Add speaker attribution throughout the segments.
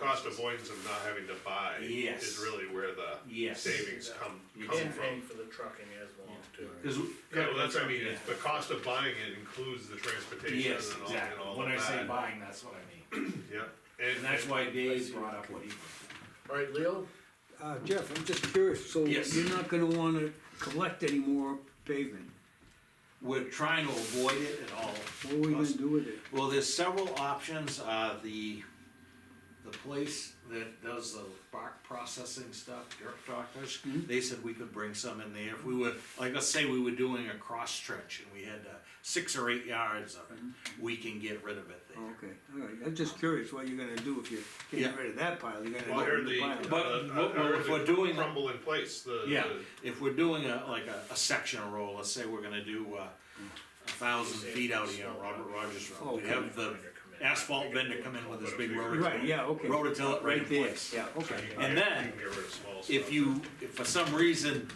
Speaker 1: cost avoidance of not having to buy
Speaker 2: Yes.
Speaker 1: is really where the
Speaker 2: Yes.
Speaker 1: savings come,
Speaker 2: You
Speaker 1: come
Speaker 2: can
Speaker 3: And
Speaker 1: from.
Speaker 3: paying for the trucking as well too.
Speaker 2: Cause, we-
Speaker 1: Yeah, well, that's what I mean, it's,
Speaker 2: Yeah.
Speaker 1: the cost of buying it includes the transportation
Speaker 2: yes,
Speaker 1: and all, and
Speaker 2: exactly,
Speaker 1: all
Speaker 2: when I
Speaker 1: of
Speaker 2: say
Speaker 1: that,
Speaker 2: buying, that's what I mean,
Speaker 1: yeah.
Speaker 2: and that's why Dave brought up what he.
Speaker 3: Alright, Leo,
Speaker 4: Uh, Jeff, I'm just curious, so
Speaker 2: Yes.
Speaker 4: you're not gonna wanna collect any more pavement?
Speaker 2: We're trying to avoid it at all.
Speaker 4: What are we gonna
Speaker 2: costs.
Speaker 4: do with it?
Speaker 2: Well, there's several options, uh, the, the place that does the bark processing stuff, dirt doctors,
Speaker 4: Mm-hmm.
Speaker 2: they said we could bring some in there if we were, like, let's say we were doing a cross trench and we had, uh, six or eight yards of
Speaker 4: Mm-hmm.
Speaker 2: it, we can get rid of it there.
Speaker 4: Oh, Okay, alright, I'm just curious what you're gonna do if you're
Speaker 2: Yeah.
Speaker 4: getting rid of that pile, you're
Speaker 1: Well, I
Speaker 4: gonna
Speaker 1: heard
Speaker 4: get
Speaker 1: the,
Speaker 4: rid
Speaker 1: uh,
Speaker 4: of the pile.
Speaker 2: But
Speaker 1: the-
Speaker 2: what-
Speaker 1: I heard
Speaker 2: what we're
Speaker 1: the
Speaker 2: doing-
Speaker 1: Crumble in place, the.
Speaker 2: Yeah,
Speaker 1: the-
Speaker 2: if we're doing a, like a, a section roll, let's say we're gonna do, uh, a thousand feet out here on Robert Rogers
Speaker 4: Oh,
Speaker 2: Road, we have the asphalt vendor come in with his big rotor.
Speaker 4: Right, yeah, okay.
Speaker 2: Rototiller right in
Speaker 4: Right there,
Speaker 2: place.
Speaker 4: yeah,
Speaker 1: so
Speaker 4: okay.
Speaker 1: you
Speaker 2: And
Speaker 1: can get-
Speaker 2: then,
Speaker 1: you can get rid of small
Speaker 2: If
Speaker 1: stuff.
Speaker 2: you, if for some reason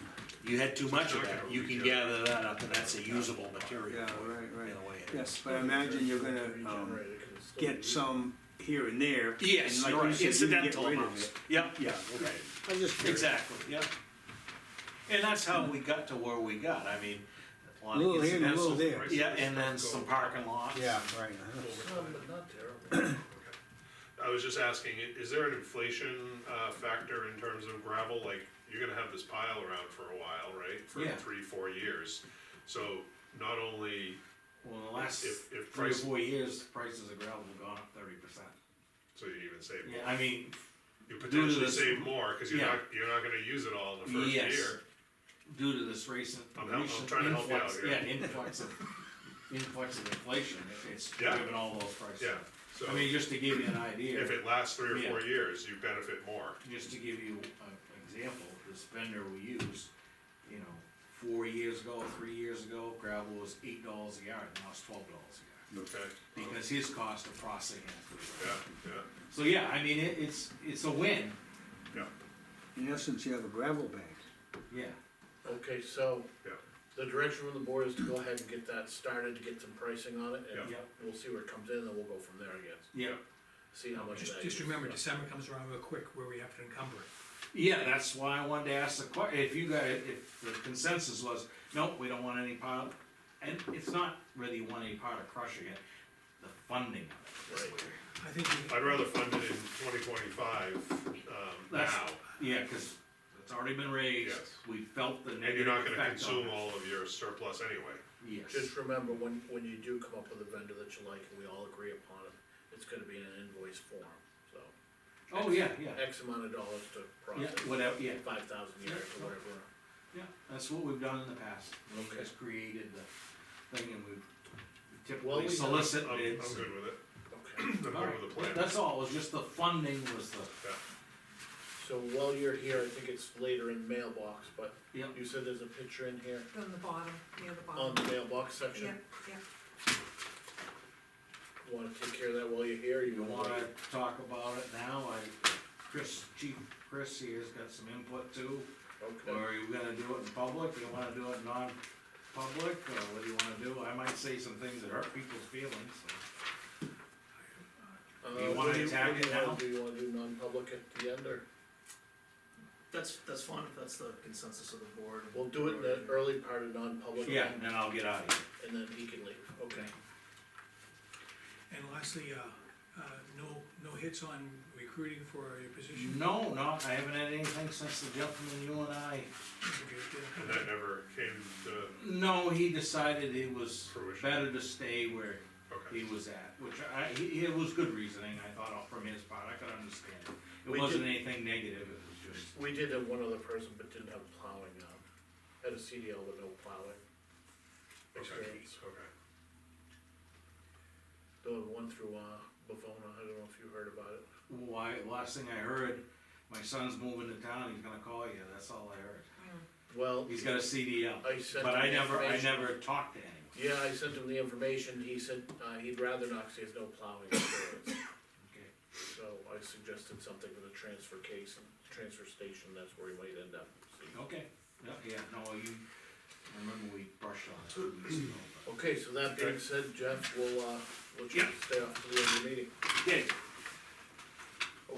Speaker 2: you had too much of
Speaker 1: not
Speaker 2: that,
Speaker 1: gonna
Speaker 2: you can
Speaker 1: reach out.
Speaker 2: gather that up, and that's a usable material.
Speaker 4: Yeah,
Speaker 2: for it,
Speaker 4: right, right.
Speaker 2: In a way. it
Speaker 4: Yes,
Speaker 2: is.
Speaker 4: but I imagine you're gonna, um,
Speaker 3: Regenerated, 'cause it's still
Speaker 4: get
Speaker 3: used.
Speaker 4: some here and there. and
Speaker 2: Yes,
Speaker 4: like
Speaker 2: you're
Speaker 4: you
Speaker 2: right,
Speaker 4: said, you can get
Speaker 2: incidental
Speaker 4: rid of
Speaker 2: amounts,
Speaker 4: it.
Speaker 2: yeah,
Speaker 4: Yeah,
Speaker 2: right,
Speaker 4: okay, I'm just curious.
Speaker 2: exactly, yeah. And that's how we got to where we got, I mean, a lot
Speaker 4: Little
Speaker 2: of
Speaker 4: here and a little
Speaker 2: incidental.
Speaker 4: there.
Speaker 2: Yeah, and then some parking lots.
Speaker 4: Yeah, right. uh-huh.
Speaker 3: Some, but not terrible.
Speaker 1: I was just asking, i- is there an inflation, uh, factor in terms of gravel, like, you're gonna have this pile around for a while, right? For
Speaker 2: Yeah.
Speaker 1: three, four years, so not only,
Speaker 2: Well, in the last
Speaker 1: If- if
Speaker 2: three or
Speaker 1: price-
Speaker 2: four years, prices of gravel have gone up thirty percent.
Speaker 1: so you even save
Speaker 2: Yeah,
Speaker 1: more,
Speaker 2: I mean,
Speaker 1: you
Speaker 2: to
Speaker 1: potentially
Speaker 2: this-
Speaker 1: save more, cause you're
Speaker 2: Yeah.
Speaker 1: not, you're not gonna use it all in the first
Speaker 2: Yes.
Speaker 1: year.
Speaker 2: due to this recent.
Speaker 1: I'm help- I'm
Speaker 2: recent
Speaker 1: trying to help you out
Speaker 2: influx-
Speaker 1: here.
Speaker 2: Yeah, influx of, influx of inflation, it- it's
Speaker 1: Yeah.
Speaker 2: driven all those prices.
Speaker 1: Yeah,
Speaker 2: I mean,
Speaker 1: so
Speaker 2: just to give you an idea,
Speaker 1: if it lasts three or
Speaker 2: Yeah.
Speaker 1: four years, you benefit more.
Speaker 2: just to give you an example, this vendor we use, you know, four years ago, three years ago, gravel was eight dollars a yard, now it's twelve dollars a
Speaker 1: Okay,
Speaker 2: yard. Because his cost of processing it.
Speaker 1: yeah, yeah,
Speaker 2: So, yeah, I mean, it, it's, it's a win,
Speaker 1: yeah,
Speaker 4: In essence, you have a gravel bank.
Speaker 2: yeah.
Speaker 3: Okay, so
Speaker 1: yeah,
Speaker 3: the direction from the board is to go ahead and get that started, to get some pricing on it, and
Speaker 2: Yeah.
Speaker 3: we'll see where it comes in, and we'll go from there, I guess.
Speaker 2: Yeah.
Speaker 3: See how much
Speaker 5: Just,
Speaker 3: that
Speaker 5: just
Speaker 3: is.
Speaker 5: remember, December comes around real quick where we have to encumber it.
Speaker 2: Yeah, that's why I wanted to ask the que, if you guys, if the consensus was, nope, we don't want any part of, and it's not really you want any part of crushing it, the funding of it. is
Speaker 3: Right.
Speaker 2: where-
Speaker 5: I think, we-
Speaker 1: I'd rather fund it in twenty twenty-five, um,
Speaker 2: That's-
Speaker 1: now,
Speaker 2: Yeah, cause it's already been raised,
Speaker 1: Yes.
Speaker 2: we felt the
Speaker 1: and you're
Speaker 2: negative
Speaker 1: not gonna
Speaker 2: effect on
Speaker 1: consume
Speaker 2: it.
Speaker 1: all of your surplus anyway.
Speaker 2: Yes,
Speaker 3: Just remember, when, when you do come up with a vendor that you like, and we all agree upon it, it's gonna be in an invoice form, so.
Speaker 2: oh, yeah, yeah,
Speaker 3: X amount of dollars to
Speaker 2: yeah,
Speaker 3: process.
Speaker 2: whatever, yeah,
Speaker 3: Five thousand yards or whatever.
Speaker 2: yeah, that's what we've done in the past, we've
Speaker 3: Okay.
Speaker 2: just created the thing and we've
Speaker 3: Well,
Speaker 2: typically
Speaker 3: we have-
Speaker 2: solicit
Speaker 1: I'm, I'm
Speaker 2: bids.
Speaker 1: good with it,
Speaker 3: Okay.
Speaker 1: I'm good
Speaker 2: Alright,
Speaker 1: with the plan.
Speaker 2: That's all, it was just the funding was the,
Speaker 3: So while you're here, I think it's later in mailbox, but
Speaker 2: yeah,
Speaker 3: you said there's a picture in here
Speaker 6: On the bottom, near the
Speaker 3: on
Speaker 6: bottom.
Speaker 3: the mailbox
Speaker 6: Yeah,
Speaker 3: section.
Speaker 6: yeah.
Speaker 3: Wanna take care of that while you're here, or
Speaker 2: You
Speaker 3: you
Speaker 2: wanna
Speaker 3: wanna?
Speaker 2: talk about it now, I, Chris, Chief Chris here's got some input too, or
Speaker 3: Okay, Uh,
Speaker 2: are you gonna do it in public, you wanna do it non-public, or what do you wanna do? I might say some things that hurt people's feelings, so.
Speaker 3: Uh,
Speaker 2: you wanna
Speaker 3: what do what
Speaker 2: attack
Speaker 3: do
Speaker 2: it
Speaker 3: you wanna
Speaker 2: now?
Speaker 3: Do you wanna do non-public at the end, or
Speaker 7: That's, that's fine, if that's the consensus of the board.
Speaker 3: we'll do it in the early part of non-public?
Speaker 2: Yeah, and then I'll get out of here.
Speaker 3: And then he can leave, okay.
Speaker 5: and lastly, uh, uh, no, no hits on recruiting for your position.
Speaker 2: No, no, I haven't had anything since the gentleman you and I,
Speaker 5: Okay, yeah.
Speaker 1: And that never came to
Speaker 2: no, he decided it was
Speaker 1: Fruition.
Speaker 2: better to stay where he
Speaker 1: Okay,
Speaker 2: was at, which I, he, it was good reasoning, I thought, from his part, I could understand it.
Speaker 3: We
Speaker 2: It wasn't
Speaker 3: did-
Speaker 2: anything negative, it was just.
Speaker 3: We did have one other person, but didn't have plowing, um, had a CDL with no plowing
Speaker 1: okay,
Speaker 3: experience.
Speaker 1: okay.
Speaker 3: The one through, uh, Bavona, I don't know if you heard about it.
Speaker 2: Why, last thing I heard, my son's moving to town, he's gonna call you, that's all I heard.
Speaker 3: Well,
Speaker 2: He's got a CDL,
Speaker 3: I sent.
Speaker 2: but
Speaker 3: him
Speaker 2: I
Speaker 3: the
Speaker 2: never, I
Speaker 3: information.
Speaker 2: never talked to anyone.
Speaker 3: Yeah, I sent him the information, he said, uh, he'd rather not, cause he has no plowing experience.
Speaker 2: Okay.
Speaker 3: So I suggested something with a transfer case and transfer station, that's where he might end up. so.
Speaker 2: Okay, yeah, yeah, no, you, I remember we brushed on it two weeks ago,
Speaker 3: Okay, so that being said, Jeff, we'll, uh, let you
Speaker 2: Yeah.
Speaker 3: stay off to the end of the meeting.
Speaker 2: but. Okay,